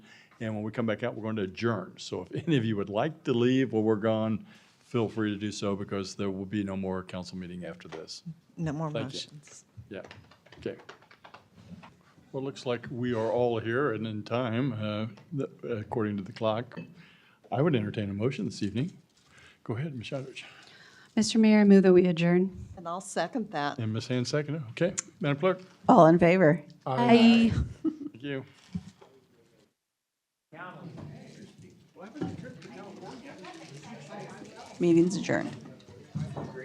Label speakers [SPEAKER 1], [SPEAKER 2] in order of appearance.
[SPEAKER 1] And when we come back out, we're going to adjourn. So if any of you would like to leave while we're gone, feel free to do so because there will be no more council meeting after this.
[SPEAKER 2] No more
[SPEAKER 1] Thank you.
[SPEAKER 2] motions.
[SPEAKER 1] Yeah, okay. Well, it looks like we are all here and in time, uh, th- according to the clock. I would entertain a motion this evening. Go ahead, Ms. Shadrich.
[SPEAKER 3] Mr. Mayor, I move that we adjourn.
[SPEAKER 2] And I'll second that.
[SPEAKER 1] And Ms. Hand seconded, okay. Madam Clerk?
[SPEAKER 2] All in favor?
[SPEAKER 3] Aye.
[SPEAKER 1] Thank you.
[SPEAKER 2] Meeting's adjourned.